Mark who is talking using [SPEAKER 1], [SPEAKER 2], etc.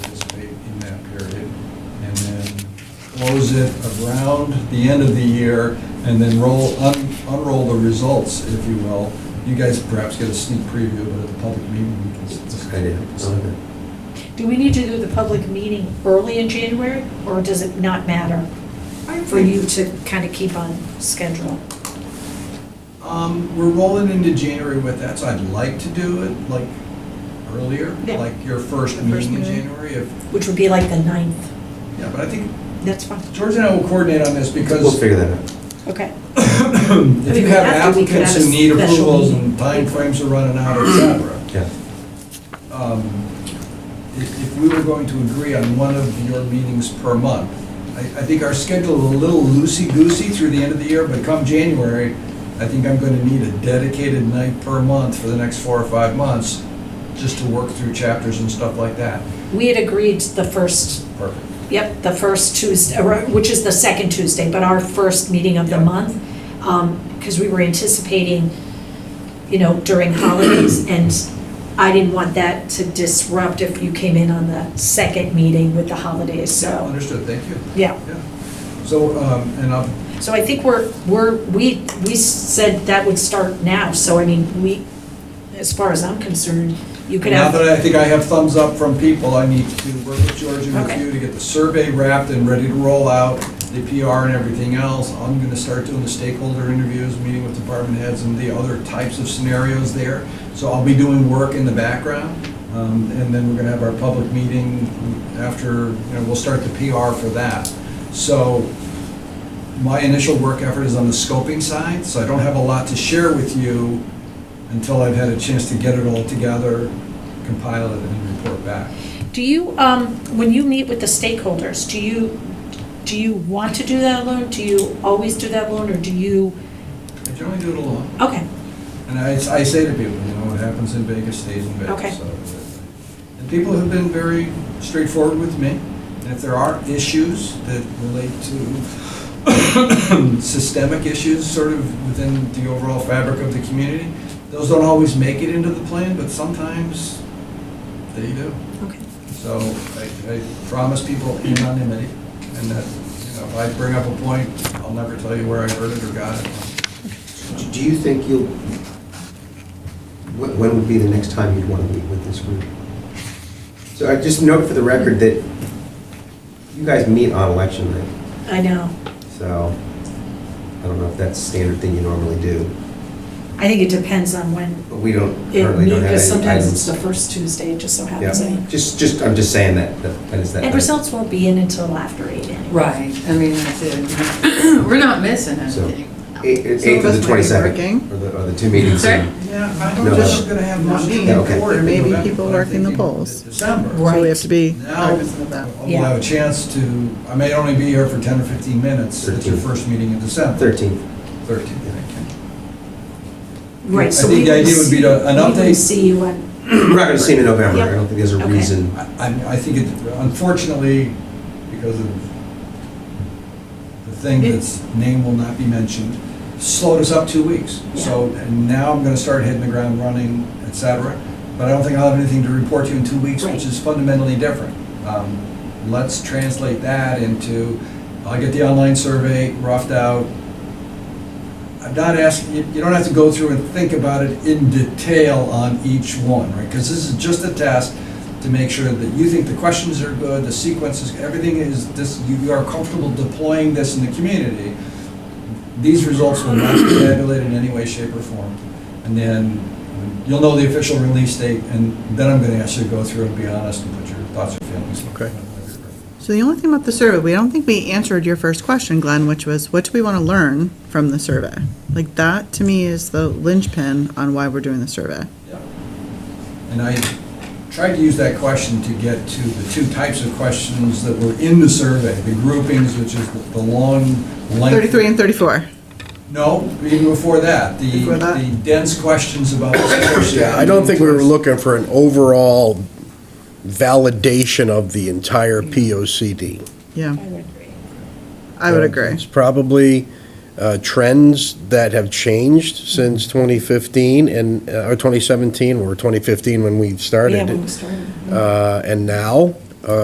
[SPEAKER 1] close it around the end of the year, and then roll, un- unroll the results, if you will. You guys perhaps get a sneak preview, but at the public meeting, we can.
[SPEAKER 2] That's a good idea. I like that.
[SPEAKER 3] Do we need to do the public meeting early in January, or does it not matter for you to kind of keep on schedule?
[SPEAKER 1] Um, we're rolling into January with that, so I'd like to do it like earlier,
[SPEAKER 3] Yeah.
[SPEAKER 1] like your first
[SPEAKER 3] The first
[SPEAKER 1] meeting in
[SPEAKER 3] meeting.
[SPEAKER 1] January. If
[SPEAKER 3] Which would be like the 9th.
[SPEAKER 1] Yeah, but I think
[SPEAKER 3] That's fine.
[SPEAKER 1] George and I will coordinate on this
[SPEAKER 2] We'll
[SPEAKER 1] because
[SPEAKER 2] figure that out.
[SPEAKER 3] Okay.
[SPEAKER 1] if you
[SPEAKER 3] we
[SPEAKER 1] have
[SPEAKER 3] have to, we could
[SPEAKER 1] applicants
[SPEAKER 3] have a
[SPEAKER 1] who need
[SPEAKER 3] special
[SPEAKER 1] approvals
[SPEAKER 3] meeting.
[SPEAKER 1] and timeframes are running out, et cetera.
[SPEAKER 2] Yeah.
[SPEAKER 1] um, If if we were going to agree on one of your meetings per month, I I think our schedule is a little loosey-goosey through the end of the year, but come January, I think I'm going to need a dedicated night per month for the next four or five months, just to work through chapters and stuff like that.
[SPEAKER 3] We had agreed the first,
[SPEAKER 1] Perfect.
[SPEAKER 3] yep, the first Tuesday, or- which is the second Tuesday, but our first meeting of the
[SPEAKER 1] Yeah.
[SPEAKER 3] month, because we were anticipating, you know, during holidays, and I didn't want that to disrupt if you came in on the second meeting with the holidays,
[SPEAKER 1] Yeah,
[SPEAKER 3] so,
[SPEAKER 1] Understood, thank you.
[SPEAKER 3] yeah.
[SPEAKER 1] Yeah. So, um, and I'll
[SPEAKER 3] So I think we're, we're, we, we said that would start now, so I mean, we, as far as I'm concerned, you could
[SPEAKER 1] Now that
[SPEAKER 3] have,
[SPEAKER 1] I think I have thumbs up from people, I need to work with George and with
[SPEAKER 3] Okay.
[SPEAKER 1] you to get the survey wrapped and ready to roll out, the PR and everything else. I'm gonna start doing the stakeholder interviews, meeting with department heads and the other types of scenarios there. So I'll be doing work in the background, um, and then we're gonna have our public meeting after, you know, we'll start the PR for that. So my initial work effort is on the scoping side, so I don't have a lot to share with you until I've had a chance to get it all together, compile it, and then report back.
[SPEAKER 3] do you, um, when you meet with the stakeholders, do you, do you want to do that alone? Do you always do that alone, or do you,
[SPEAKER 1] I generally do it alone,
[SPEAKER 3] okay,
[SPEAKER 1] and I, I say to people, you know, what happens in Vegas stays in Vegas.
[SPEAKER 3] Okay.
[SPEAKER 1] so. And people have been very straightforward with me, and if there are issues that relate to systemic issues sort of within the overall fabric of the community, those don't always make it into the plan, but sometimes they do.
[SPEAKER 3] okay.
[SPEAKER 1] So I, I promise people anonymity, and that, you know, if I bring up a point, I'll never tell you where I heard it or got it.
[SPEAKER 2] Do you think you'll, wh- when would be the next time you'd want to meet with this group? So I just note for the record that you guys meet on election night,
[SPEAKER 3] I know.
[SPEAKER 2] so I don't know if that's standard thing you normally do,
[SPEAKER 3] I think it depends on when
[SPEAKER 2] but we don't,
[SPEAKER 3] it,
[SPEAKER 2] currently don't have
[SPEAKER 3] because
[SPEAKER 2] any
[SPEAKER 3] sometimes it's
[SPEAKER 2] items.
[SPEAKER 3] the first Tuesday, it just so happens. I-
[SPEAKER 2] Yeah, just, just, I'm just saying that, that that is that.
[SPEAKER 3] And results won't be in until after eight anyway.
[SPEAKER 4] Right, I mean, that's it. We're not missing
[SPEAKER 2] So,
[SPEAKER 4] anything.
[SPEAKER 2] Eight eight-
[SPEAKER 4] Some
[SPEAKER 2] eight
[SPEAKER 4] of
[SPEAKER 2] to
[SPEAKER 4] us
[SPEAKER 2] the
[SPEAKER 4] might be
[SPEAKER 2] 22nd,
[SPEAKER 4] working.
[SPEAKER 2] or the, or the two meetings.
[SPEAKER 4] Sorry?
[SPEAKER 2] in-
[SPEAKER 1] Yeah, I
[SPEAKER 2] No,
[SPEAKER 1] don't think we're
[SPEAKER 2] no.
[SPEAKER 1] gonna have
[SPEAKER 4] Not
[SPEAKER 1] much.
[SPEAKER 4] me.
[SPEAKER 2] Yeah, okay.
[SPEAKER 1] in
[SPEAKER 4] Maybe
[SPEAKER 1] November, but
[SPEAKER 4] people
[SPEAKER 1] I'm
[SPEAKER 4] working the
[SPEAKER 1] thinking
[SPEAKER 4] polls.
[SPEAKER 1] December.
[SPEAKER 3] Right.
[SPEAKER 4] So we have to be
[SPEAKER 1] Now,
[SPEAKER 4] cognizant of that.
[SPEAKER 1] we'll have a chance to, I may only be here for 10 or 15 minutes at your
[SPEAKER 2] Thirteen.
[SPEAKER 1] first meeting in December.
[SPEAKER 2] 13th.
[SPEAKER 1] 13. I
[SPEAKER 3] Right, so
[SPEAKER 1] think
[SPEAKER 3] we
[SPEAKER 1] the
[SPEAKER 3] would
[SPEAKER 1] idea would be to- an
[SPEAKER 3] see- we would
[SPEAKER 1] update-
[SPEAKER 3] See you on,
[SPEAKER 2] We're not going to see him in November, I
[SPEAKER 3] Yeah.
[SPEAKER 2] don't think there's a
[SPEAKER 3] Okay.
[SPEAKER 2] reason.
[SPEAKER 1] I, I'm- I think it, unfortunately, because of the thing that's, name will not be mentioned, slowed us up two weeks. So now I'm gonna start hitting the ground running, et cetera, but I don't think I'll have anything to report to you in two weeks,
[SPEAKER 3] Right.
[SPEAKER 1] which is fundamentally different. Um, Let's translate that into, I'll get the online survey roughed out. I'm not asking, you you don't have to go through and think about it in detail on each one, right? Because this is just a test to make sure that you think the questions are good, the sequences, everything is, this, you are comfortable deploying this in the community. These results will not be tabulated in any way, shape, or form. And then you'll know the official release date, and then I'm gonna ask you to go through and be honest and put your thoughts and feelings.
[SPEAKER 5] Okay.
[SPEAKER 4] So the only thing about the survey, we don't think we answered your first question, Glenn, which was, what do we want to learn from the survey? Like, that, to me, is the linchpin on why we're doing the survey.
[SPEAKER 1] Yeah. And I tried to use that question to get to the two types of questions that were in the survey, the groupings, which is the- the long, lengthy.
[SPEAKER 4] 33 and 34.
[SPEAKER 1] No, even before that, the,
[SPEAKER 4] Before that?
[SPEAKER 1] the dense questions about. Yeah,
[SPEAKER 5] I don't think we were looking for an overall validation of the entire POCD.
[SPEAKER 3] I
[SPEAKER 4] Yeah,
[SPEAKER 3] would agree.
[SPEAKER 4] I would agree.
[SPEAKER 5] It's probably uh, trends that have changed since 2015 and, uh, or 2017, or 2015 when we
[SPEAKER 3] Yeah, when
[SPEAKER 5] started,
[SPEAKER 3] we started.
[SPEAKER 5] uh, and now.